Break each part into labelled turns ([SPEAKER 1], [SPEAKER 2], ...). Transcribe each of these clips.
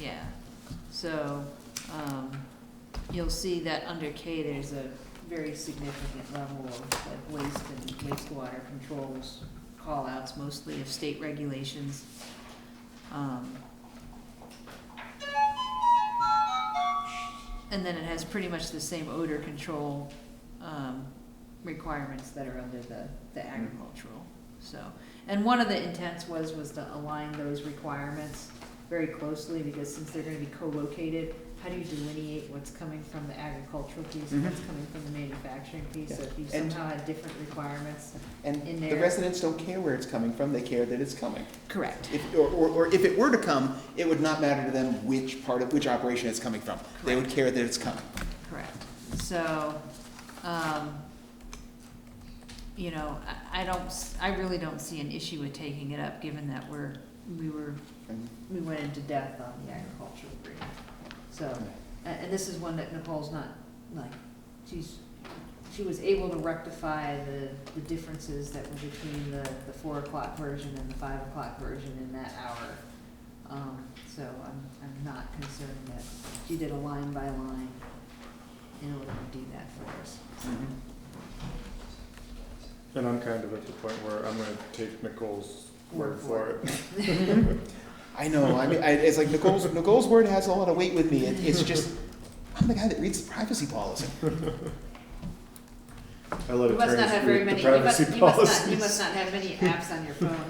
[SPEAKER 1] yeah. So, um, you'll see that under K, there's a very significant level of like waste and wastewater controls, callouts mostly of state regulations. Um, And then it has pretty much the same odor control, um, requirements that are under the, the agricultural, so. And one of the intents was, was to align those requirements very closely, because since they're gonna be co-located, how do you delineate what's coming from the agricultural piece and what's
[SPEAKER 2] Mhm.
[SPEAKER 1] coming from the manufacturing piece? So if you
[SPEAKER 2] And-
[SPEAKER 1] somehow had different requirements. in
[SPEAKER 2] And the
[SPEAKER 1] there.
[SPEAKER 2] residents don't care where it's coming from, they care that it's coming.
[SPEAKER 1] Correct.
[SPEAKER 2] If, or, or, or if it were to come, it would not matter to them which part of, which operation it's coming from. They would care that it's coming.
[SPEAKER 1] Correct. So, um, you know, I, I don't, s- I really don't see an issue with taking it up, given that we're, we were,
[SPEAKER 2] And-
[SPEAKER 1] we went into depth on the agricultural agreement. So, and, and this is one that Nicole's not, like, she's, she was able to rectify the, the differences that were between the, the four o'clock version and the five o'clock version in that hour. Um, so I'm, I'm not concerned that she did a line by line in order to do that for us.
[SPEAKER 3] Mm-hmm. And I'm kind of at the point where I'm gonna take Nicole's word for it.
[SPEAKER 2] I know, I mean, I, it's like Nicole's, Nicole's word has a lot of weight with me, It- it's just, I'm the guy that reads the privacy policy.
[SPEAKER 3] I let
[SPEAKER 1] You must not
[SPEAKER 3] attorneys
[SPEAKER 1] have very
[SPEAKER 3] read
[SPEAKER 1] many,
[SPEAKER 3] the
[SPEAKER 1] you must,
[SPEAKER 3] privacy
[SPEAKER 1] you must not, you must
[SPEAKER 3] policies.
[SPEAKER 1] not have many apps on your phone.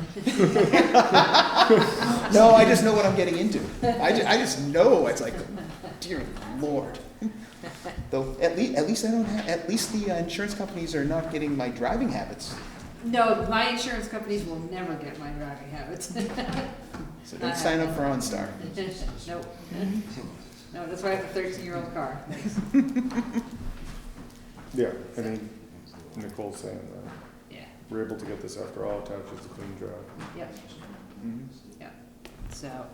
[SPEAKER 2] No, I just know what I'm getting into. I ju- I just know, it's like, dear lord. Though, at least, at least I don't have, at least the uh, insurance companies are not getting my driving habits.
[SPEAKER 1] No, my insurance companies will never get my driving habits.
[SPEAKER 2] So don't sign up for OnStar.
[SPEAKER 1] Nope. Mm-hmm. No, that's why I have a thirteen-year-old car.
[SPEAKER 3] Yeah, I mean, Nicole's saying that
[SPEAKER 1] Yeah,
[SPEAKER 3] we're able to get this after all attaches to clean drive.
[SPEAKER 1] yep,
[SPEAKER 2] Mhm.
[SPEAKER 1] so,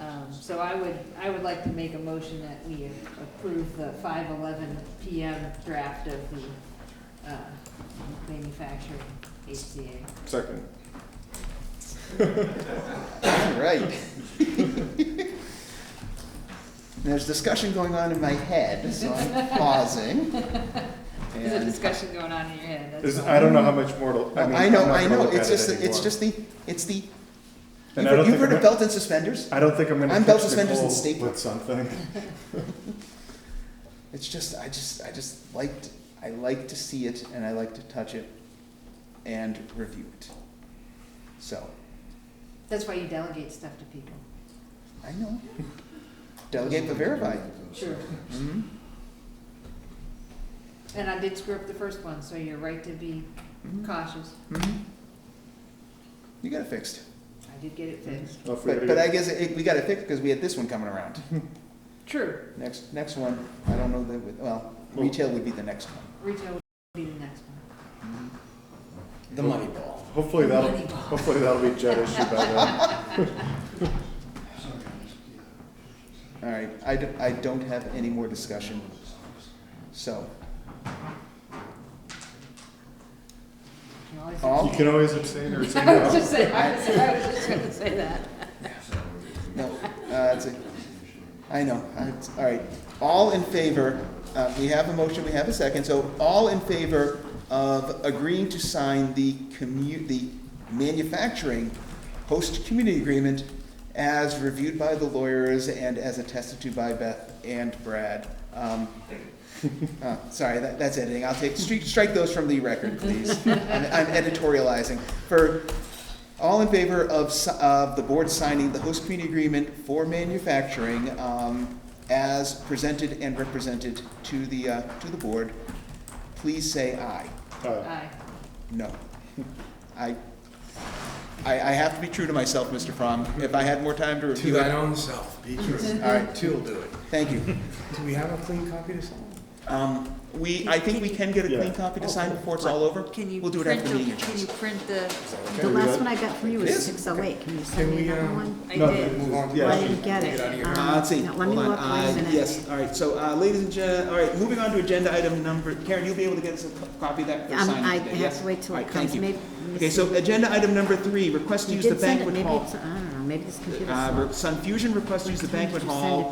[SPEAKER 1] um, so I would, I would like to make a motion that we approve the five eleven PM draft of the, uh, manufacturing HCA.
[SPEAKER 3] Second,
[SPEAKER 2] All right. There's discussion going on in my head, so I'm pausing.
[SPEAKER 1] There's a
[SPEAKER 2] And-
[SPEAKER 1] discussion going on in your head, that's
[SPEAKER 3] is,
[SPEAKER 1] all.
[SPEAKER 3] I don't know how much more to, I mean,
[SPEAKER 2] I
[SPEAKER 3] I'm not
[SPEAKER 2] know, I
[SPEAKER 3] gonna
[SPEAKER 2] know,
[SPEAKER 3] look
[SPEAKER 2] it's
[SPEAKER 3] at
[SPEAKER 2] just,
[SPEAKER 3] it
[SPEAKER 2] the- it's
[SPEAKER 3] anymore.
[SPEAKER 2] just the, it's the, you've
[SPEAKER 3] And I
[SPEAKER 2] heard-
[SPEAKER 3] don't
[SPEAKER 2] you've
[SPEAKER 3] think
[SPEAKER 2] heard
[SPEAKER 3] I'm
[SPEAKER 2] of
[SPEAKER 3] gonna-
[SPEAKER 2] belt and suspenders?
[SPEAKER 3] I don't think I'm
[SPEAKER 2] I'm
[SPEAKER 3] gonna
[SPEAKER 2] belt
[SPEAKER 3] pitch
[SPEAKER 2] suspenders and
[SPEAKER 3] Nicole
[SPEAKER 2] stapler.
[SPEAKER 3] with something.
[SPEAKER 2] It's just, I just, I just liked, I like to see it and I like to touch it and review it. So,
[SPEAKER 1] That's why you delegate stuff to people.
[SPEAKER 2] I know. Delegate but verify.
[SPEAKER 1] Sure.
[SPEAKER 2] Mhm.
[SPEAKER 1] And I did screw up the first one, so you're right to be
[SPEAKER 2] Mhm.
[SPEAKER 1] cautious.
[SPEAKER 2] Mhm. You got it fixed.
[SPEAKER 1] I did get it fixed.
[SPEAKER 3] Well, if we
[SPEAKER 2] But,
[SPEAKER 3] gotta
[SPEAKER 2] but I
[SPEAKER 3] get-
[SPEAKER 2] guess it, we got it fixed because we had this one coming around.
[SPEAKER 1] True.
[SPEAKER 2] Next, next one, I don't know that, would- well, retail would be the next one.
[SPEAKER 1] Retail would be the next one.
[SPEAKER 2] The money ball.
[SPEAKER 3] Hopefully that'll, hopefully that'll be jet issue by then.
[SPEAKER 2] All right, I, do- I don't have any more discussion, so.
[SPEAKER 1] You always-
[SPEAKER 2] All?
[SPEAKER 3] You can always abstain or say
[SPEAKER 1] I was
[SPEAKER 3] no.
[SPEAKER 1] just saying, I was, I was just gonna say that.
[SPEAKER 2] No, uh, that's it. I know, I- it's- all right. All in favor, uh, we have a motion, we have a second, so all in favor of agreeing to sign the commu, the manufacturing host community agreement as reviewed by the lawyers and as attested to by Beth and Brad. Um, uh, Sorry, that, that's editing. I'll take, strike, strike those from the record, please. I'm I'm editorializing. For, all in favor of, si- of the board signing the host community agreement for manufacturing, um, as presented and represented to the, uh, to the board, please say aye.
[SPEAKER 3] Uh,
[SPEAKER 1] Aye.
[SPEAKER 2] No. I, I, I have to be true to myself, Mr. Fromm. If I had more time to
[SPEAKER 4] To
[SPEAKER 2] review
[SPEAKER 4] thine
[SPEAKER 2] it,
[SPEAKER 4] own self, be true.
[SPEAKER 2] All right.
[SPEAKER 4] Two'll do it.
[SPEAKER 2] thank you.
[SPEAKER 4] Do we have a clean copy to sign?
[SPEAKER 2] Um, we, I think we can get a clean
[SPEAKER 3] Yeah.
[SPEAKER 2] copy to sign before it's all over.
[SPEAKER 5] Oh, Can you
[SPEAKER 2] We'll do it
[SPEAKER 5] print
[SPEAKER 2] after the
[SPEAKER 5] the-
[SPEAKER 2] meeting.
[SPEAKER 5] Can you print the,
[SPEAKER 3] okay?
[SPEAKER 5] the
[SPEAKER 3] We
[SPEAKER 5] last
[SPEAKER 3] got-
[SPEAKER 5] one I got from you
[SPEAKER 2] It
[SPEAKER 5] was
[SPEAKER 2] is?
[SPEAKER 5] six oh eight, can you
[SPEAKER 4] Can
[SPEAKER 5] send me
[SPEAKER 4] we,
[SPEAKER 5] another
[SPEAKER 4] um,
[SPEAKER 5] one?
[SPEAKER 1] I
[SPEAKER 3] No,
[SPEAKER 1] did.
[SPEAKER 3] it's-
[SPEAKER 4] Well,
[SPEAKER 3] yeah,
[SPEAKER 5] I
[SPEAKER 3] she-
[SPEAKER 5] didn't get
[SPEAKER 4] Get
[SPEAKER 5] it.
[SPEAKER 4] out of your-
[SPEAKER 5] Um,
[SPEAKER 2] Uh, let's see,
[SPEAKER 5] no, Let me
[SPEAKER 2] hold on.
[SPEAKER 5] look
[SPEAKER 2] Uh,
[SPEAKER 5] wait a minute.
[SPEAKER 2] Yes, all right, so, uh, ladies and gen, all right, moving on to agenda item number, Karen, you'll be able to get us a co- copy of that for
[SPEAKER 5] Um,
[SPEAKER 2] signing
[SPEAKER 5] I
[SPEAKER 2] today,
[SPEAKER 5] have
[SPEAKER 2] yes?
[SPEAKER 5] to wait till
[SPEAKER 2] All
[SPEAKER 5] it
[SPEAKER 2] right,
[SPEAKER 5] comes,
[SPEAKER 2] thank you.
[SPEAKER 5] maybe. let me
[SPEAKER 2] Okay,
[SPEAKER 5] see.
[SPEAKER 2] so agenda item number three, request to
[SPEAKER 5] You
[SPEAKER 2] use the
[SPEAKER 5] did send it.
[SPEAKER 2] banquet
[SPEAKER 5] Maybe
[SPEAKER 2] hall.
[SPEAKER 5] it's- I don't know,
[SPEAKER 1] Maybe this computer.
[SPEAKER 2] Uh, Sun Fusion requests to use the banquet hall